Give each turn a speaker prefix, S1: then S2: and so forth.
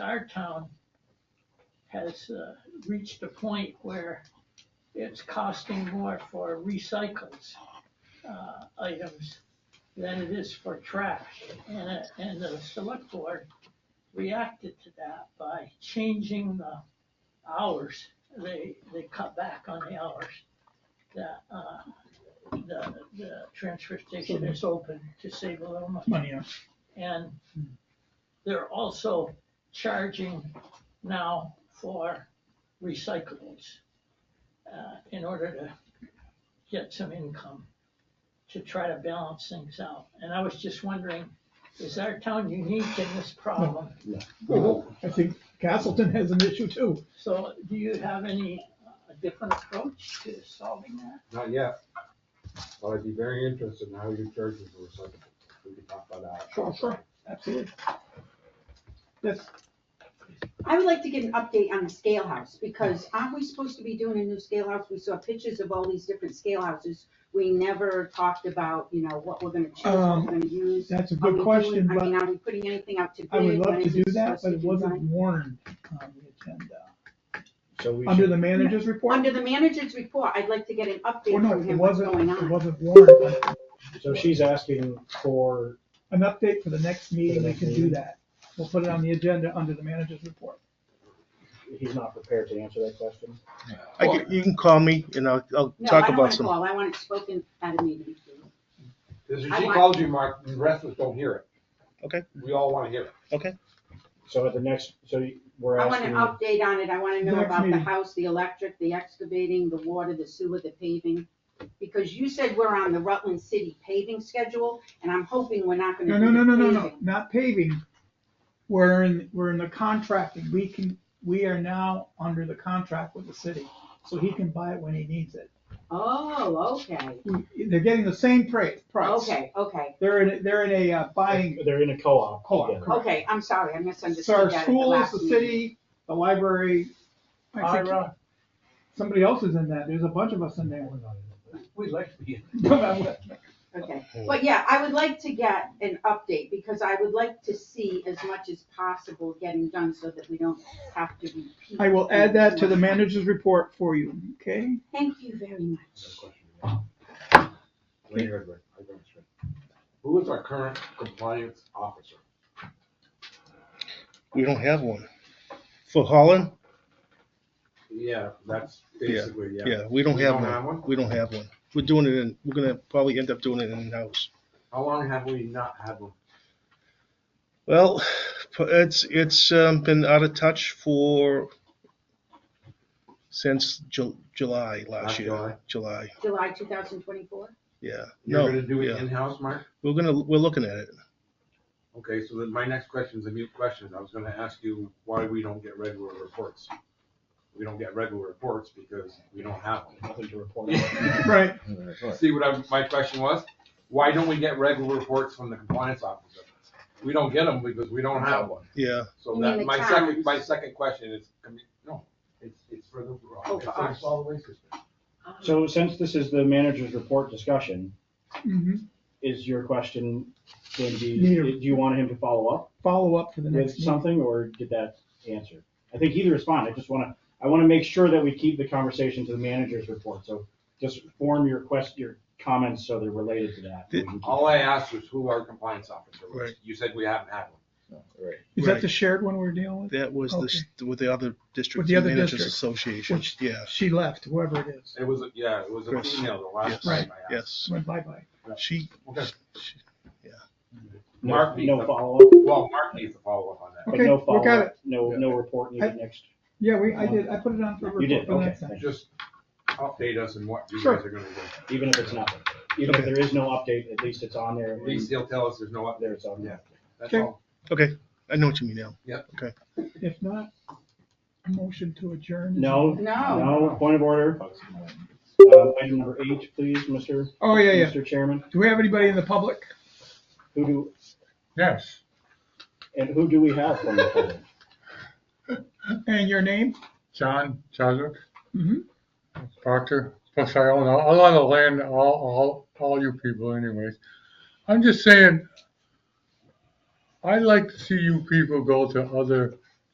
S1: our town has uh, reached a point where it's costing more for recycles uh, items than it is for trash. And, it- and the select board reacted to that by changing the hours. They, they cut back on the hours that, uh, the, the transfer station is open to save a little money.
S2: money on.
S1: And they're also charging now for recyclables uh, in order to get some income to try to balance things out. And I was just wondering, is our town unique in this problem?
S2: I think Castleton has an issue too.
S1: So do you have any uh, different approach to solving that?
S3: Not yet, but I'd be very interested in how you charge for recycling. We could talk about that.
S2: Sure, sure. Absolutely. Yes,
S4: I would like to get an update on the scale house, because aren't we supposed to be doing a new scale house? We saw pictures of all these different scale houses. We never talked about, you know, what we're gonna choose, what
S2: Um,
S4: we're gonna use.
S2: that's a Um,
S4: Are we
S2: good
S4: doing-
S2: question,
S4: I mean,
S2: but
S4: are we putting anything out to bid?
S2: I would love
S4: When
S2: to
S4: is
S2: do
S4: it
S2: that,
S4: supposed
S2: but
S4: to
S2: it
S4: be
S2: wasn't
S4: done?
S2: warned on the agenda.
S5: So we
S2: Under
S5: should,
S2: the manager's report?
S4: Under the manager's report, I'd like to get an
S2: Well,
S4: update
S2: no,
S4: from
S2: it
S4: him, what's
S2: wasn't,
S4: going
S2: it
S4: on.
S2: wasn't warned.
S5: so she's asking for,
S2: An update for the next meeting, we
S5: next
S2: can do
S5: meeting.
S2: that. We'll put it on the agenda under the manager's report.
S5: he's not prepared to answer that question.
S6: I can, you can call me and I'll, I'll
S4: No, I
S6: talk
S4: don't want
S6: about
S4: to
S6: some.
S4: call, I want it spoken at a meeting.
S3: Because if
S4: I
S3: she
S4: want-
S3: calls you, Mark, the rest of us don't hear it.
S6: Okay.
S3: We all wanna hear it.
S5: So at the next, so you- we're
S4: I want an
S5: asking,
S4: update on it, I wanna know
S2: Next
S4: about the
S2: meeting.
S4: house, the electric, the excavating, the water, the sewer, the paving. Because you said we're on the Rutland City paving schedule, and I'm hoping we're not
S2: No,
S4: gonna do
S2: no, no, no, no,
S4: the
S2: no,
S4: paving.
S2: not paving. We're in, we're in the contracting. We can, we are now under the contract with the city, so he can buy it when he needs it.
S4: Oh, okay,
S2: We- They're getting the same price, price.
S4: okay, okay,
S2: They're in, they're in a uh, buying,
S5: they're in a co-op.
S2: Co-op,
S5: together.
S2: correct.
S4: okay, I'm sorry, I
S2: so
S4: misunderstood
S2: our
S4: that at the
S2: schools,
S4: last
S2: the
S4: meeting.
S2: city, the library. I think
S1: Ira,
S2: Somebody else is in that. There's a bunch of us in there.
S7: We'd like to be in.
S4: Okay, but yeah, I would like to get an update, because I would like to see as much as possible getting done so that we don't have to repeat.
S2: I will add that to the manager's report for you, okay?
S4: Thank you very much.
S3: Wait, wait, wait, I got it straight. Who is our current compliance officer?
S6: We don't have one. For Holland?
S3: Yeah, that's basically, yeah.
S6: Yeah, we don't
S3: We
S6: have
S3: don't have
S6: one.
S3: one?
S6: We don't have one. We're doing it in, we're gonna probably end up doing it in-house.
S3: How long have we not had one?
S6: Well, it's, it's um, been out of touch for, since Ju- July last
S3: Last
S6: year.
S3: July.
S6: July,
S4: July two thousand twenty-four?
S6: yeah.
S3: You're
S6: No,
S3: gonna do it
S6: yeah.
S3: in-house, Mark?
S6: We're gonna, we're looking at it.
S3: Okay, so then my next question is a mute question. I was gonna ask you why we don't get regular reports. We don't get regular reports because we don't have one.
S5: Nothing to report.
S3: Yeah.
S2: Right.
S3: See what I, my question was? Why don't we get regular reports from the compliance officer? We don't get them because we don't have one.
S6: Yeah,
S3: So
S4: You mean
S3: that,
S4: the
S3: my second,
S4: towns?
S3: my second question is, com- no, it's, it's for the,
S4: Oh,
S3: it's
S4: for
S3: for the
S4: us.
S3: solid waste system.
S5: So since this is the manager's report discussion,
S2: Mhm.
S5: is your question going to be,
S2: Need a-
S5: do you want him to follow up
S2: Follow up for the
S5: with
S2: next meeting.
S5: something or did that answer? I think either is fine. I just want to, I want to make sure that we keep the conversation to the manager's report. So just form your quest, your comments so they're related to that. We can keep-
S3: All I asked was who our compliance officer was.
S6: Right.
S3: You said we haven't had one.
S2: Is that the shared one we're dealing with?
S6: that was the, with the other
S2: With
S6: district
S2: the other
S6: managers
S2: district.
S6: association.
S2: Which-
S6: Yeah,
S2: She left, whoever it is.
S3: It was, a- yeah, it was a
S6: Chris.
S3: female the last
S6: Yes.
S3: time I asked.
S6: yes.
S2: Went bye-bye.
S6: She,
S3: Okay.
S6: she-
S5: No-
S3: Mark needs
S5: No
S3: to,
S5: follow-up.
S3: well, Mark needs to follow up on that.
S5: But
S2: Okay,
S5: no
S2: look at
S5: follow-up,
S2: it.
S5: no, no report
S2: I-
S5: needed next.
S2: Yeah, we, I did, I put it on for report
S5: You did,
S2: for the
S5: okay,
S2: next time.
S5: thank you.
S3: Just update us on what you
S2: Sure.
S3: guys are gonna do.
S5: even if it's nothing. Even if
S6: Okay.
S5: there is no update, at least it's on there.
S3: At least he'll tell us there's no update.
S5: There it's on
S3: Yeah.
S5: there.
S3: That's
S2: Okay.
S3: all.
S6: I know what you mean now.
S2: If not, a motion to adjourn. is-
S5: No.
S4: No,
S2: Oh.
S5: No, point of order. Uh, Item number eight, please, Mr.
S2: Oh, yeah, yeah.
S5: Mr. Chairman.
S2: Do we have anybody in the public?
S5: Who do,
S7: Yes.
S5: and who do we have from the public?
S2: And your name?
S7: John Chadwick,
S2: Mm-hmm.
S7: doctor, plus I own a a lot of land, all, all, all you people anyways. I'm just saying, I like to see you people go to other